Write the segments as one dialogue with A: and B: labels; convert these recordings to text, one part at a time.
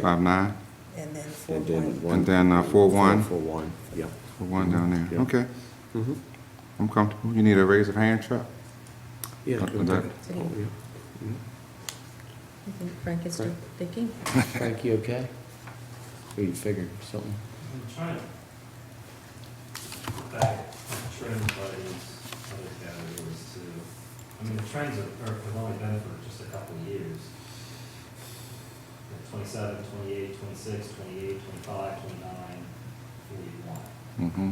A: five nine,
B: And then four
C: And then
B: one.
C: one.
A: And then, uh, four one.
C: Four one, yeah.
A: the one down there,
C: Yeah. Mm-hmm.
A: okay. I'm comfortable, you need a raise of hand, Chuck?
C: Yeah.
A: Uh,
C: good.
A: that-
C: Oh, yeah.
B: I think Frank is still thinking.
C: Frank, you okay? What you figure, something?
D: I'm trying to back trend buddies, other categories too. I mean, the trends are, are, have only been for just a couple of years. Like 27, 28, 26, 28, 25, 29, 41.
A: Mm-hmm.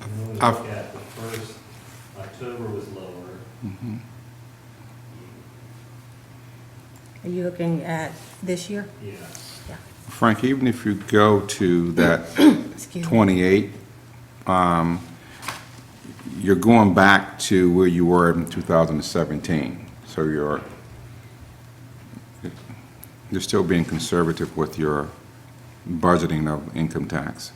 D: And when we
A: I've-
D: look at the first, October was lower.
A: Mhm.
B: Are you looking at this year?
D: Yeah,
B: Yeah.
A: Frank, even if you go to that
B: Excuse me.
A: 28, um, you're going back to where you were in 2017. So you're, you're still being conservative with your budgeting of income tax.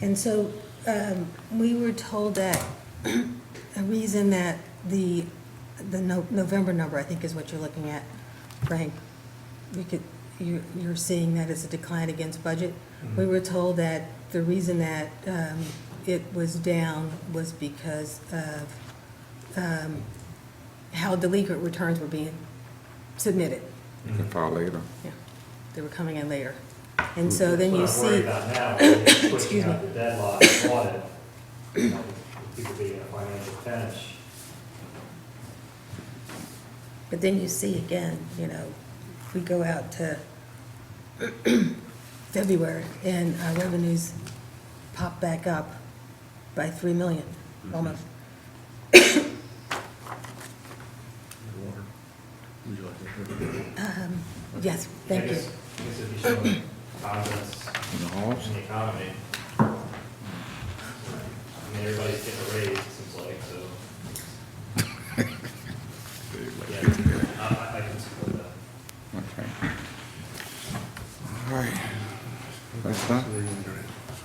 B: And so, um, we were told that a reason that the, the No- November number, I think is what you're looking at, Frank, we could, you, you're seeing that as a decline against budget.
D: Mm-hmm.
B: We were told that the reason that, um, it was down was because of, um, how delinquent returns were being submitted.
A: You can file later.
B: Yeah, they were coming in later. And so then you
D: That's what I'm worried
B: see,
D: about now, is
B: Excuse
D: pushing out
B: me.
D: the deadline of audit, you know, with people being in a financial pinch.
B: but then you see again, you know, if we go out to February and our revenues pop back up by three million, almost. Um, Yes,
D: I
B: thank you.
D: guess, I guess if you show confidence in the economy, I mean, everybody's getting a raise, it seems like, so. Yeah, Uh, I, I- I can support that.
A: Okay. All right. That's done.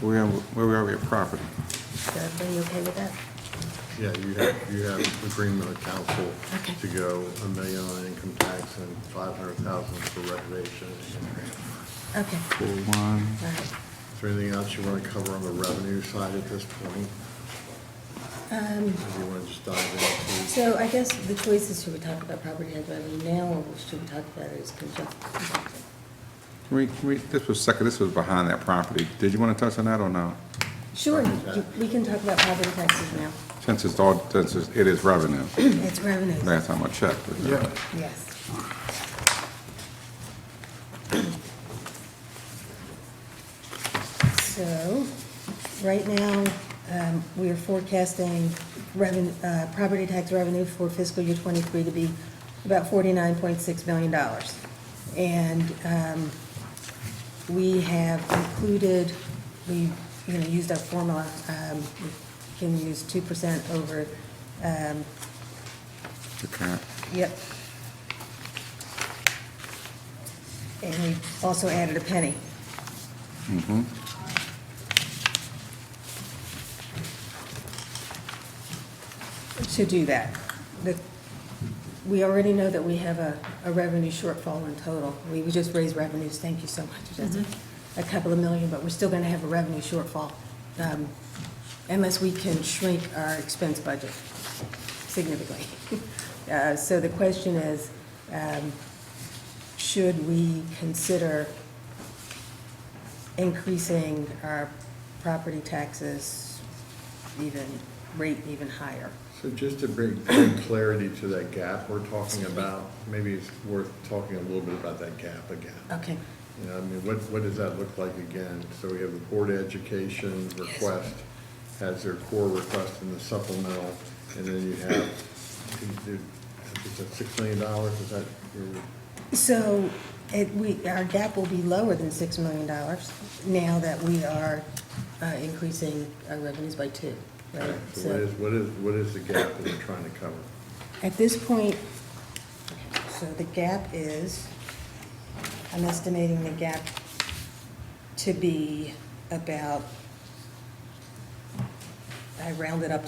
A: Where, where are we at property?
B: Is everybody okay with that?
E: Yeah, you have, you have agreement with council
B: Okay.
E: to go a million on income tax and five hundred thousand for renovation. Is
B: Okay,
A: Four one.
B: all right.
E: there anything else you want to cover on the revenue side at this point?
B: Um,
E: Or do you want to just dive into?
B: So I guess the choice is should we talk about property tax revenue now or should we talk about it as conjunct?
A: Can we, can we, this was second, this was behind that property. Did you want to touch on that or no?
B: Sure,
E: Property tax.
B: we can talk about property taxes now.
A: Since it's all, since it's- it is revenue,
B: It's revenues,
A: last time I checked. it was-
B: yes. So, right now, um, we are forecasting revenue, uh, property tax revenue for fiscal year twenty-three to be about forty-nine point six million dollars. And, um, we have included, we, you know, used our formula, um, we can use two percent over, um,
A: The cap.
B: Yep. And we also added a penny.
A: Mhm.
B: to do that. The- We already know that we have a, a revenue shortfall in total. We we just raised revenues, thank you so much, Jessica, a couple of million, but we're still gonna have a revenue shortfall um, unless we can shrink our expense budget significantly. Uh, So the question is, um, should we consider increasing our property taxes even, rate even higher?
E: So just to bring bring clarity to that gap we're talking about, maybe it's worth talking a little bit about that gap again.
B: Okay.
E: You know, I mean, what, what does that look like again? So we have the Board of Education request as their core request in the supplemental, and then you have, I think, is that six million dollars, is that? your-
B: So it, we, our gap will be lower than $6 million now that we are uh, increasing our revenues by two, right?
E: So what
B: So
E: is, what is, what is the gap that we're trying to cover?
B: at this point, so the gap is, I'm estimating the gap to be about, I rounded up to